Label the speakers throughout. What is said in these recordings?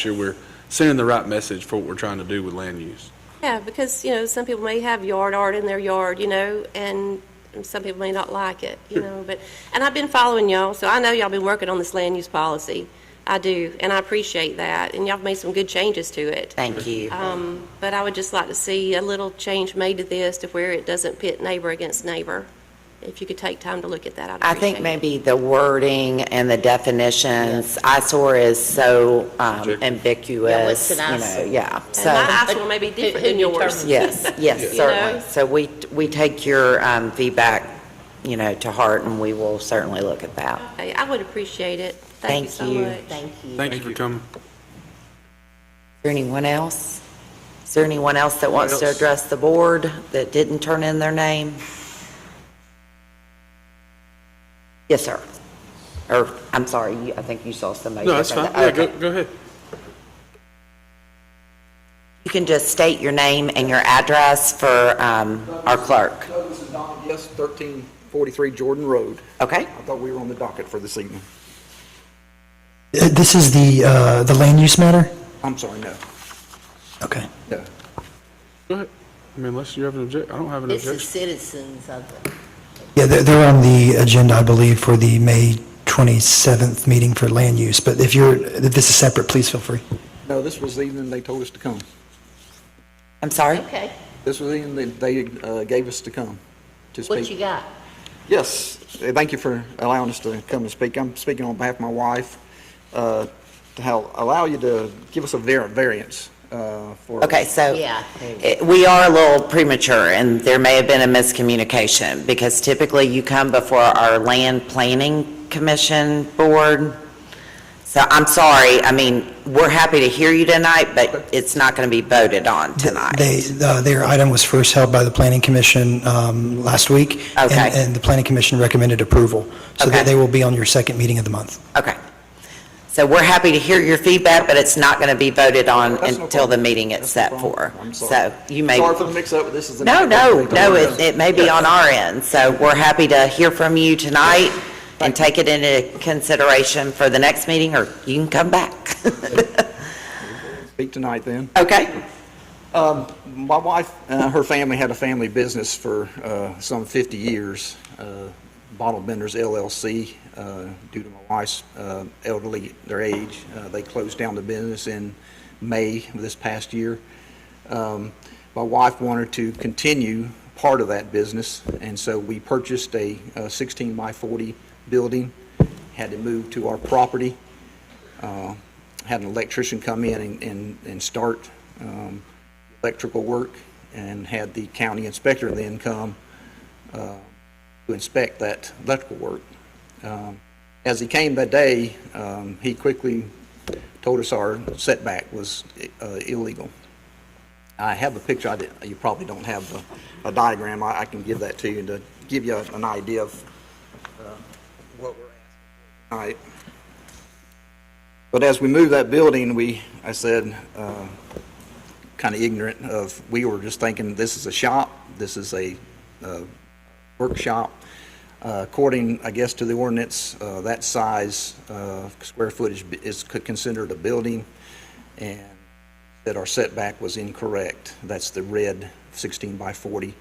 Speaker 1: sure we're sending the right message for what we're trying to do with land use.
Speaker 2: Yeah, because, you know, some people may have yard art in their yard, you know, and some people may not like it, you know, but, and I've been following y'all, so I know y'all been working on this land use policy. I do, and I appreciate that, and y'all have made some good changes to it.
Speaker 3: Thank you.
Speaker 2: Um, But I would just like to see a little change made to this to where it doesn't pit neighbor against neighbor. If you could take time to look at that, I'd
Speaker 3: I
Speaker 2: appreciate it.
Speaker 3: think maybe the wording and the definitions, eyesore is so um,
Speaker 1: Objective.
Speaker 4: Yeah,
Speaker 3: ambiguous,
Speaker 4: what's
Speaker 3: you
Speaker 4: an
Speaker 3: know,
Speaker 4: eyesore?
Speaker 3: yeah.
Speaker 2: And
Speaker 3: So,
Speaker 2: my eyes will maybe be
Speaker 4: Who-
Speaker 2: different
Speaker 4: who
Speaker 2: than yours.
Speaker 4: determines?
Speaker 3: yes, yes,
Speaker 2: You
Speaker 3: certainly.
Speaker 2: know?
Speaker 3: So we, we take your um, feedback, you know, to heart, and we will certainly look at that.
Speaker 2: Okay, I would appreciate it. Thank you so
Speaker 3: Thank you.
Speaker 2: much.
Speaker 4: Thank you.
Speaker 1: Thank you for coming.
Speaker 3: Is there anyone else? Is there anyone else that wants to
Speaker 1: else?
Speaker 3: address the board that didn't turn in their name? Yes, sir. Or, I'm sorry, you- I think you saw somebody.
Speaker 1: No, that's fine. Yeah,
Speaker 3: different.
Speaker 1: go,
Speaker 3: Okay.
Speaker 1: go ahead.
Speaker 3: You can just state your name and your address for um, our clerk,
Speaker 5: Douglas and Donna Guest, 1343 Jordan Road.
Speaker 3: okay?
Speaker 5: I thought we were on the docket for this evening.
Speaker 6: Uh, This is the, uh, the land use matter?
Speaker 5: I'm sorry, no,
Speaker 6: Okay.
Speaker 5: no.
Speaker 1: Go ahead. I mean, unless you have an object, I don't have an
Speaker 4: This is
Speaker 1: objection.
Speaker 4: citizens of the,
Speaker 6: Yeah, they're, they're on the agenda, I believe, for the May 27th meeting for land use, but if you're, if this is separate, please feel free.
Speaker 5: No, this was the evening they told us to come.
Speaker 3: I'm sorry?
Speaker 4: okay,
Speaker 5: This was the evening that they uh, gave us to come to speak.
Speaker 4: what you got?
Speaker 5: Yes, uh, thank you for allowing us to come and speak. I'm speaking on behalf of my wife, uh, to hel- allow you to give us a var- variance uh, for.
Speaker 3: Okay, so.
Speaker 4: Yeah, there we
Speaker 3: it- We are a little premature, and there may have been a miscommunication, because typically you come before our Land Planning Commission Board. So I'm sorry, I mean, we're happy to hear you tonight, but it's not going to be voted on tonight.
Speaker 6: They, uh, their item was first held by the planning commission um, last week. and-
Speaker 3: Okay.
Speaker 6: And the planning commission recommended approval. So
Speaker 3: Okay.
Speaker 6: that they will be on your second meeting of the month.
Speaker 3: Okay. So we're happy to hear your feedback, but it's not going to be voted on
Speaker 5: That's no
Speaker 3: until the
Speaker 5: problem.
Speaker 3: meeting it's
Speaker 5: That's no
Speaker 3: set for.
Speaker 5: problem. I'm sorry.
Speaker 3: So you may.
Speaker 5: Sorry for the mix-up, but this is the.
Speaker 3: No, no,
Speaker 5: They
Speaker 3: no,
Speaker 5: told
Speaker 3: it,
Speaker 5: us.
Speaker 3: it may be on our end, so we're happy to hear from you tonight and take it into consideration for the next meeting, or you can come back.
Speaker 5: Speak tonight, then.
Speaker 3: Okay?
Speaker 5: My wife, uh, her family had a family business for uh, some 50 years, uh, Bottle Benders LLC. Uh, Due to my wife's uh, elderly, their age, uh, they closed down the business in May of this past year. Um, My wife wanted to continue part of that business, and so we purchased a uh, 16 by 40 building, had to move to our property had an electrician come in and, and, and start um, electrical work and had the county inspector then come uh, to inspect that electrical work. Um, As he came that day, um, he quickly told us our setback was uh, illegal. I have a picture, I did, you probably don't have a, a diagram, I, I can give that to you to give you an idea of uh, what we're asking. All right. But as we moved that building, we, I said, kind of ignorant of, we were just thinking, this is a shop, this is a uh, workshop. Uh, According, I guess, to the ordinance, uh, that size, uh, square footage b- is c- considered a building, and that our setback was incorrect. That's the red 16 by 40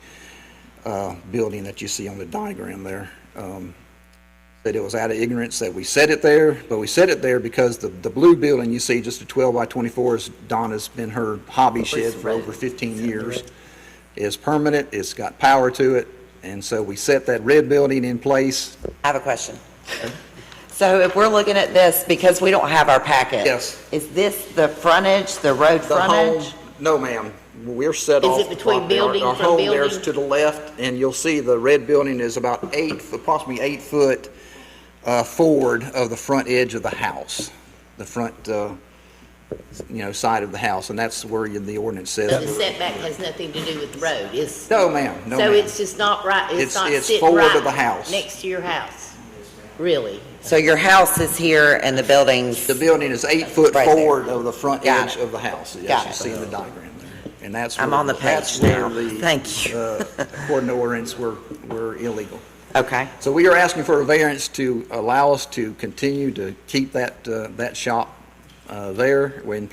Speaker 5: uh, building that you see on the diagram there. Um, that it was out of ignorance that we said it there, but we said it there because the, the blue building you see, just a 12 by 24, is Donna's been her hobby shed for over 15 years. It's permanent, it's got power to it, and so we set that red building in place.
Speaker 3: I have a question. So if we're looking at this, because we don't have our packet.
Speaker 5: Yes.
Speaker 3: Is this the frontage, the road
Speaker 5: The home,
Speaker 3: frontage?
Speaker 5: no ma'am, we're set
Speaker 4: Is
Speaker 5: off.
Speaker 4: it between
Speaker 5: property. Our-
Speaker 4: building
Speaker 5: Our
Speaker 4: from
Speaker 5: home there's
Speaker 4: building?
Speaker 5: to the left, and you'll see the red building is about eight, approximately eight foot uh, forward of the front edge of the house, the front, uh, you know, side of the house, and that's where you- the ordinance
Speaker 4: The
Speaker 5: says.
Speaker 4: setback has nothing to do with the road, it's.
Speaker 5: No ma'am, no
Speaker 4: So
Speaker 5: ma'am.
Speaker 4: it's just not right,
Speaker 5: It's-
Speaker 4: it's not
Speaker 5: it's
Speaker 4: sitting
Speaker 5: forward
Speaker 4: right.
Speaker 5: of the house.
Speaker 4: Next to your house, really.
Speaker 3: So your house is here and the building's,
Speaker 5: The building is eight foot
Speaker 3: Right there.
Speaker 5: forward of the front
Speaker 3: Got
Speaker 5: edge
Speaker 3: it.
Speaker 5: of the house,
Speaker 3: Got
Speaker 5: as you
Speaker 3: it.
Speaker 5: see in the diagram there. And that's
Speaker 3: I'm
Speaker 5: where-
Speaker 3: on the
Speaker 5: that's
Speaker 3: page now.
Speaker 5: where the,
Speaker 3: Thank you.
Speaker 5: uh, According to ordinance, we're, we're illegal.
Speaker 3: okay?
Speaker 5: So we are asking for a variance to allow us to continue to keep that, uh, that shop uh, there. We're in